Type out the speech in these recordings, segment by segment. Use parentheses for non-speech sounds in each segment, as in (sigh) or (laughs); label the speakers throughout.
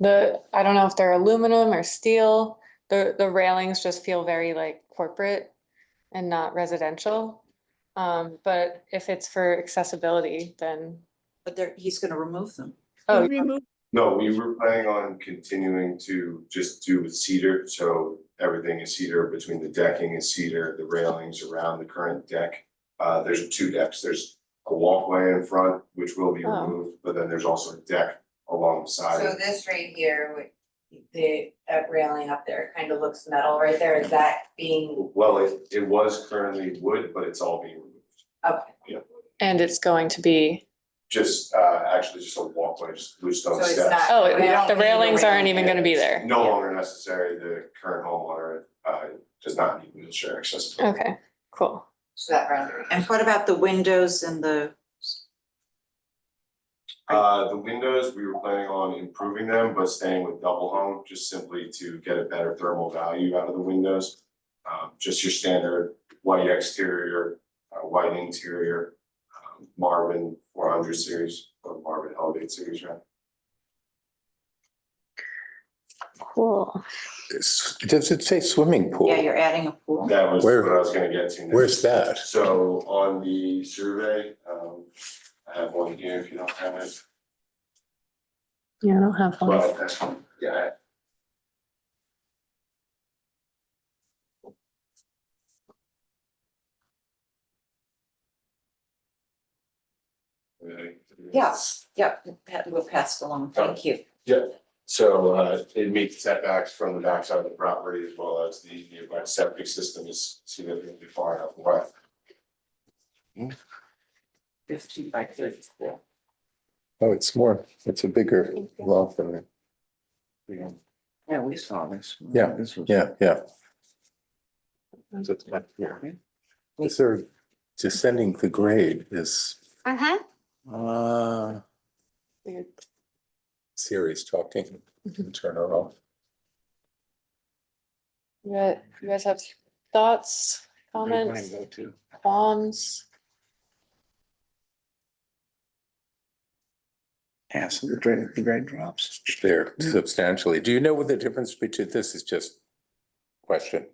Speaker 1: The, I don't know if they're aluminum or steel, the, the railings just feel very like corporate and not residential. Um, but if it's for accessibility, then,
Speaker 2: But there, he's gonna remove them.
Speaker 1: oh,
Speaker 3: Remove,
Speaker 4: No, we were planning on continuing to just do with cedar, so everything is cedar between the decking is cedar, the railings around the current deck. Uh, there's two decks, there's a walkway in front, which will be
Speaker 1: Oh.
Speaker 4: removed, but then there's also a deck alongside
Speaker 5: So
Speaker 4: it.
Speaker 5: this right here, would- the uh, railing up there kind of looks metal right there, is that being,
Speaker 4: Well, it, it was currently wood, but it's all being removed.
Speaker 5: okay,
Speaker 1: and it's going to be,
Speaker 4: Just, uh, actually just a walkway, just
Speaker 5: so
Speaker 4: bluestone
Speaker 5: it's
Speaker 4: steps.
Speaker 5: not.
Speaker 1: oh, it-
Speaker 5: we don't
Speaker 1: the
Speaker 5: need a
Speaker 1: railings aren't
Speaker 5: railing.
Speaker 1: even gonna be there.
Speaker 4: No longer necessary, the current homeowner, uh, does not need wheelchair accessibility.
Speaker 1: Okay, cool.
Speaker 5: So that rendering.
Speaker 2: And what about the windows and the,
Speaker 4: Uh, the windows, we were planning on improving them, but staying with double hung, just simply to get a better thermal value out of the windows. Um, just your standard white exterior, uh, white interior, um, Marvin four hundred series or Marvin Elevate series, right?
Speaker 1: Cool.
Speaker 6: It's- Does it say swimming pool?
Speaker 2: yeah, you're adding a pool?
Speaker 4: That was
Speaker 6: Where-
Speaker 4: what I was gonna get to next.
Speaker 6: Where's that?
Speaker 4: So on the survey, um, I have one here if you don't have it.
Speaker 1: Yeah, I don't have one.
Speaker 4: Well, that's, fine. yeah. Really?
Speaker 2: Yes, yep, Pat- we'll pass it along, thank you.
Speaker 4: So uh, it meets setbacks from the backside of the property as well as the nearby septic system is significantly far enough away.
Speaker 2: Fifteen by thirty-four.
Speaker 6: Oh, it's more, it's a bigger lot than, that.
Speaker 7: Yeah, we saw this.
Speaker 6: Yeah,
Speaker 7: This was.
Speaker 6: yeah, yeah. Is there descending the grade is,
Speaker 8: Uh-huh.
Speaker 6: uh,
Speaker 1: Weird.
Speaker 6: Siri's
Speaker 7: Mm-hmm.
Speaker 6: talking, turn her off.
Speaker 1: You guys, you guys have thoughts, comments,
Speaker 7: Go to.
Speaker 1: qualms?
Speaker 7: Ask the grade, the grade drops.
Speaker 6: There substantially. Do you know what the difference between, this is just question.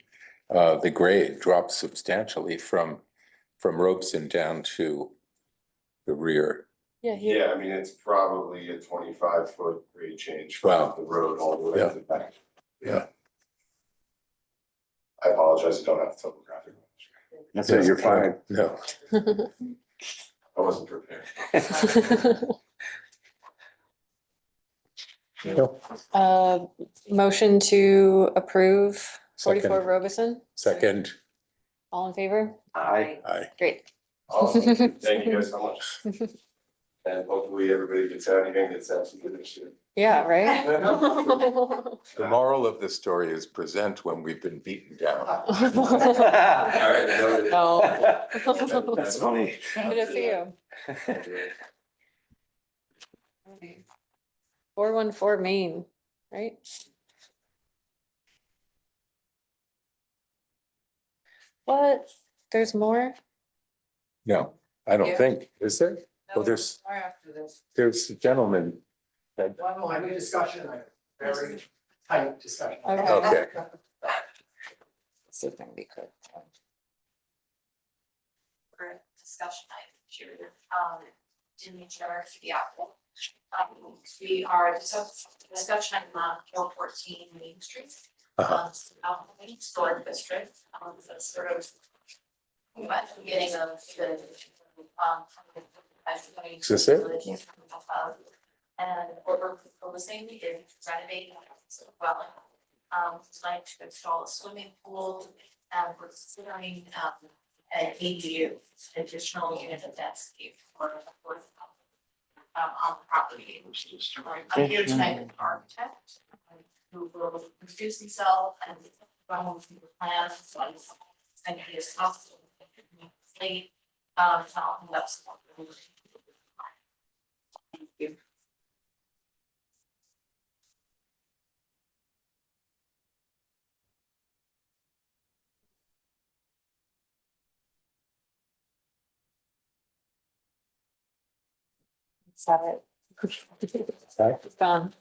Speaker 6: Uh, the grade drops substantially from, from Robeson down to the rear.
Speaker 1: Yeah, here,
Speaker 4: Yeah, I mean, it's probably a twenty-five foot grade change
Speaker 6: Wow.
Speaker 4: from the road all the way
Speaker 6: Yeah.
Speaker 4: to the back.
Speaker 6: Yeah.
Speaker 4: I apologize, I don't have topographic. knowledge.
Speaker 7: That's it, you're (laughs) fine.
Speaker 6: No,
Speaker 1: (laughs)
Speaker 4: I wasn't prepared.
Speaker 1: Uh, motion to approve forty-four
Speaker 6: Second.
Speaker 1: Robeson,
Speaker 6: second,
Speaker 1: all in favor?
Speaker 7: I.
Speaker 6: I.
Speaker 1: Great.
Speaker 7: (laughs)
Speaker 4: Awesome, thank you guys so much. And hopefully everybody gets out here and gets out some good
Speaker 7: (laughs)
Speaker 4: shit.
Speaker 1: Yeah, right?
Speaker 4: (laughs)
Speaker 6: The moral of the story is present when we've been beaten down.
Speaker 4: Alright, noted.
Speaker 1: No.
Speaker 7: That's funny.
Speaker 1: Good to see you. Four one four Main, right? What? There's more?
Speaker 6: No, I don't
Speaker 5: Yeah.
Speaker 6: think, is there?
Speaker 5: No,
Speaker 6: Well, Oh, there's,
Speaker 5: More after this.
Speaker 6: there's a gentleman.
Speaker 9: One more, new discussion item, very tight discussion.
Speaker 1: Okay.
Speaker 6: Okay,
Speaker 5: This is gonna be quick.
Speaker 10: for a discussion item, Chair. Um, Denise Jarrett for the apple. Um, we are discuss- discussion item on Hill fourteen Main Street.
Speaker 6: Uh-huh.
Speaker 10: Um, Alpha Lake Historic District, um, that's sort of. At the beginning of the, um.
Speaker 6: Is this it?
Speaker 10: And what we're proposing is renovating the dwelling. Um, like to install a swimming pool, and we're considering, um, an ADU, additional unit of that scheme for the fourth um, on the property. I'm here tonight with an architect um, who will introduce himself and run with the plans, so I'm sending his house. Late, um, so I'll end up supporting.
Speaker 2: Thank you.
Speaker 1: Is that it? It's gone.